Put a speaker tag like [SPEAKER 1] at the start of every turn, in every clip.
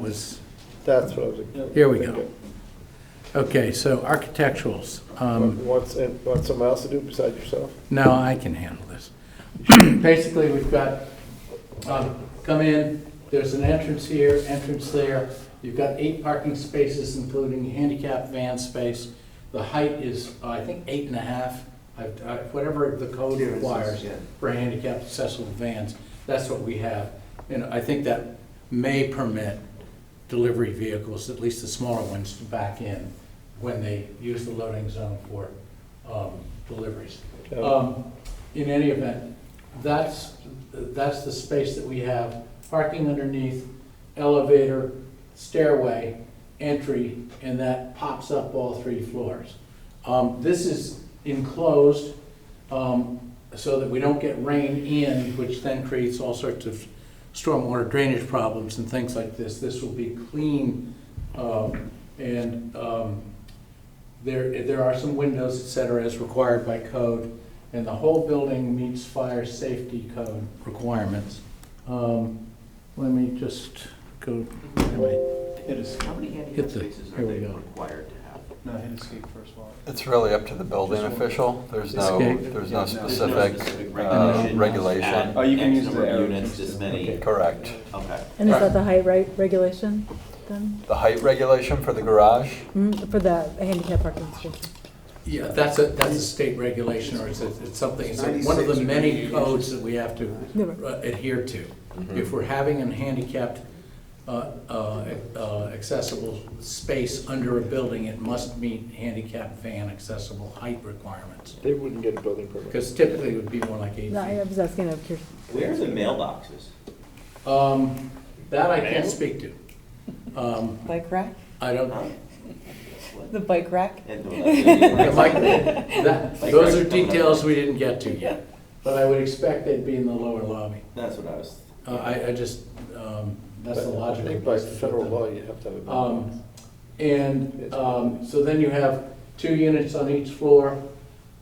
[SPEAKER 1] was,
[SPEAKER 2] That's what I was.
[SPEAKER 1] Here we go.
[SPEAKER 2] thinking.
[SPEAKER 1] okay, so architecturals. Um,
[SPEAKER 2] You Want, and want someone else to do besides yourself?
[SPEAKER 1] No, I can handle this. Basically, we've got, um, come in, there's an entrance here, entrance there. You've got eight parking spaces, including handicap van space. The height is, uh, I think, eight and a half, I've- I- whatever the code requires for handicap accessible vans. That's what we have. And I think that may permit delivery vehicles, at least the smaller ones, to back in when they use the loading zone for um, deliveries.
[SPEAKER 2] Okay.
[SPEAKER 1] Um, In any event, that's, that's the space that we have, parking underneath, elevator, stairway, entry, and that pops up all three floors. Um, This is enclosed um, so that we don't get rain in, which then creates all sorts of stormwater drainage problems and things like this. This will be clean um, and um, there, there are some windows, et cetera, as required by code, and the whole building meets fire safety code requirements. Um, Let me just go, anyway,
[SPEAKER 3] How many handicap
[SPEAKER 1] Hit the-
[SPEAKER 3] spaces are
[SPEAKER 1] here we
[SPEAKER 3] they
[SPEAKER 1] go.
[SPEAKER 3] required to have?
[SPEAKER 4] No, hit escape first of all.
[SPEAKER 5] It's really up to the building
[SPEAKER 4] Just one.
[SPEAKER 5] official. There's no,
[SPEAKER 1] Escape.
[SPEAKER 5] there's no
[SPEAKER 3] There's no
[SPEAKER 5] specific
[SPEAKER 3] specific
[SPEAKER 5] uh,
[SPEAKER 3] regulation.
[SPEAKER 5] regulation.
[SPEAKER 4] Oh, you can
[SPEAKER 3] X
[SPEAKER 4] use
[SPEAKER 3] number
[SPEAKER 4] the
[SPEAKER 3] of
[SPEAKER 4] arrow
[SPEAKER 3] Units,
[SPEAKER 4] keys
[SPEAKER 3] this
[SPEAKER 4] to-
[SPEAKER 3] many,
[SPEAKER 5] Correct.
[SPEAKER 3] okay.
[SPEAKER 6] And is that the height right regulation then,
[SPEAKER 5] The height regulation for the garage,
[SPEAKER 6] Mm, for the handicap parking spaces?
[SPEAKER 1] yeah, that's a, that's a state regulation, or it's, a- it's something, it's a- one of the many codes that we have to
[SPEAKER 6] Never.
[SPEAKER 1] uh, adhere to. If we're having a handicapped uh, uh, uh, accessible space under a building, it must meet handicap van accessible height requirements.
[SPEAKER 2] They wouldn't get a building permit.
[SPEAKER 1] Because typically it would be more like eight
[SPEAKER 6] No, I
[SPEAKER 1] feet.
[SPEAKER 6] was asking out of curiosity.
[SPEAKER 3] Where are the mailboxes?
[SPEAKER 1] Um, That I can't speak to. Um,
[SPEAKER 7] Bike rack?
[SPEAKER 1] I don't,
[SPEAKER 3] Huh?
[SPEAKER 7] The bike rack?
[SPEAKER 3] And the- the-
[SPEAKER 1] Yeah, Mike, that-
[SPEAKER 3] Like
[SPEAKER 1] those
[SPEAKER 3] right
[SPEAKER 1] are
[SPEAKER 3] from the-
[SPEAKER 1] details we didn't get to yet, but I would expect they'd be in the lower lobby.
[SPEAKER 3] That's what I was,
[SPEAKER 1] Uh, I, I just, um, that's the
[SPEAKER 2] But I
[SPEAKER 1] logical
[SPEAKER 2] think By
[SPEAKER 1] place to put
[SPEAKER 2] federal
[SPEAKER 1] them.
[SPEAKER 2] law, you have to have a building.
[SPEAKER 1] Um, And um, so then you have two units on each floor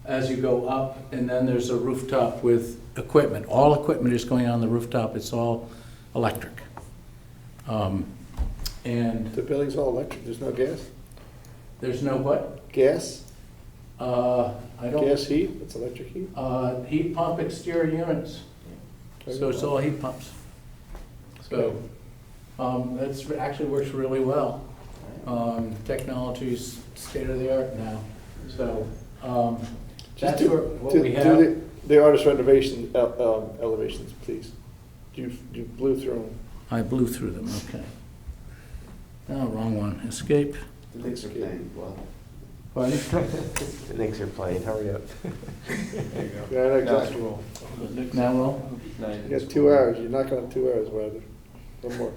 [SPEAKER 1] as you go up, and then there's a rooftop with equipment. All equipment is going on the rooftop, it's all electric. Um, And
[SPEAKER 2] The building's all electric, there's no gas?
[SPEAKER 1] there's no what?
[SPEAKER 2] Gas?
[SPEAKER 1] Uh, I don't,
[SPEAKER 2] Gas heat? It's electric heat?
[SPEAKER 1] uh, heat pump exterior units, so it's all heat pumps. So um, that's, actually works really well. Um, Technology's state of the art now, so um,
[SPEAKER 2] Just
[SPEAKER 1] that's
[SPEAKER 2] do-
[SPEAKER 1] where- what
[SPEAKER 2] do-
[SPEAKER 1] we
[SPEAKER 2] do
[SPEAKER 1] have.
[SPEAKER 2] the- The artist renovation el- um, elevations, please. You, you blew through them.
[SPEAKER 1] I blew through them, okay. Oh, wrong one, escape.
[SPEAKER 8] The Knicks are playing. Well,
[SPEAKER 1] Pardon?
[SPEAKER 8] the Knicks are playing. Hurry up.
[SPEAKER 4] There you go.
[SPEAKER 2] Yeah, I like
[SPEAKER 4] Now
[SPEAKER 2] that.
[SPEAKER 4] it's roll.
[SPEAKER 1] Now roll?
[SPEAKER 4] Now you
[SPEAKER 2] You
[SPEAKER 4] just
[SPEAKER 2] got two
[SPEAKER 4] roll.
[SPEAKER 2] hours, you're not gonna have two hours, rather. One more.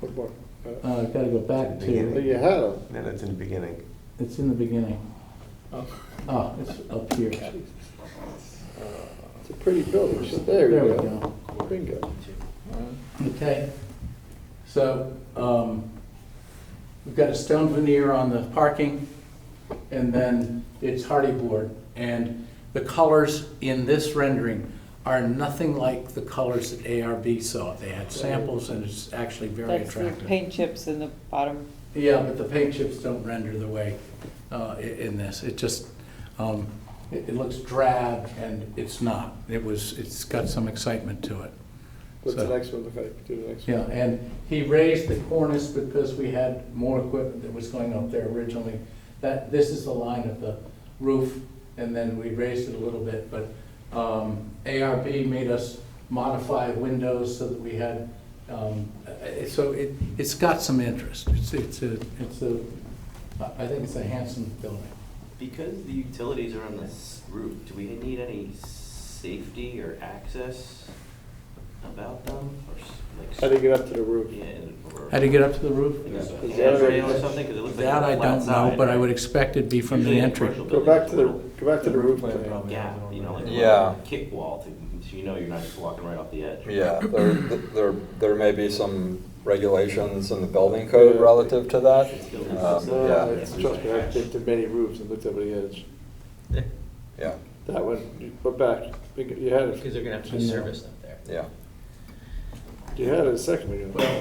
[SPEAKER 2] One more. Uh,
[SPEAKER 1] Uh, Gotta go back
[SPEAKER 2] But
[SPEAKER 1] to,
[SPEAKER 8] Beginning.
[SPEAKER 2] you had them.
[SPEAKER 8] No, that's in the beginning.
[SPEAKER 1] it's in the beginning. Oh, it's up here.
[SPEAKER 2] It's a pretty building, so there you
[SPEAKER 1] There we
[SPEAKER 2] go.
[SPEAKER 1] go.
[SPEAKER 2] Bingo.
[SPEAKER 1] Okay, so, um, we've got a stone veneer on the parking, and then it's hardy board. And the colors in this rendering are nothing like the colors that ARB saw. They had samples, and it's actually very
[SPEAKER 7] That's the
[SPEAKER 1] attractive.
[SPEAKER 7] paint chips in the bottom.
[SPEAKER 1] Yeah, but the paint chips don't render the way, uh, i- in this. It just, um, it, it looks drab, and it's not. It was, it's got some excitement to it.
[SPEAKER 2] What's the
[SPEAKER 1] So-
[SPEAKER 2] next one look like? Do the next one.
[SPEAKER 1] yeah, and he raised the cornice because we had more equipment that was going up there originally. That, this is the line of the roof, and then we raised it a little bit, but um, ARB made us modify windows so that we had, um, uh, so it, it's got some interest. It's, it's a, it's a, I I think it's a handsome building.
[SPEAKER 3] because the utilities are on this roof, do we need any safety or access about them? Or s- like?
[SPEAKER 2] How do you get up to the roof?
[SPEAKER 3] Yeah, or-
[SPEAKER 1] How do you get up to the roof?
[SPEAKER 3] Like a
[SPEAKER 2] Is that
[SPEAKER 3] handrail
[SPEAKER 2] already-
[SPEAKER 3] or something, 'Cause it looks like
[SPEAKER 1] That
[SPEAKER 3] a
[SPEAKER 1] I
[SPEAKER 3] flat
[SPEAKER 1] don't know,
[SPEAKER 3] side,
[SPEAKER 1] but I would
[SPEAKER 3] right?
[SPEAKER 1] expect it'd be from the
[SPEAKER 3] Usually in
[SPEAKER 1] entry.
[SPEAKER 3] commercial
[SPEAKER 2] Go
[SPEAKER 3] buildings,
[SPEAKER 2] back to the,
[SPEAKER 3] it's a
[SPEAKER 2] go back to the roof
[SPEAKER 4] plan
[SPEAKER 2] plan.
[SPEAKER 4] probably has a
[SPEAKER 3] gap,
[SPEAKER 4] little
[SPEAKER 3] you know,
[SPEAKER 4] bit.
[SPEAKER 3] like a
[SPEAKER 5] Yeah.
[SPEAKER 3] little kick wall, to- so you know you're not just walking right off the edge.
[SPEAKER 5] yeah, there, there, there may be some regulations in the building code relative to that. Um,
[SPEAKER 2] No,
[SPEAKER 5] Yeah,
[SPEAKER 2] Uh, it's, trust me, I've been to many roofs and looked over the edge.
[SPEAKER 5] yeah,
[SPEAKER 2] That one, you go back, you had it,
[SPEAKER 9] Because they're gonna have to do service up there.
[SPEAKER 5] yeah.
[SPEAKER 2] you had it a second ago.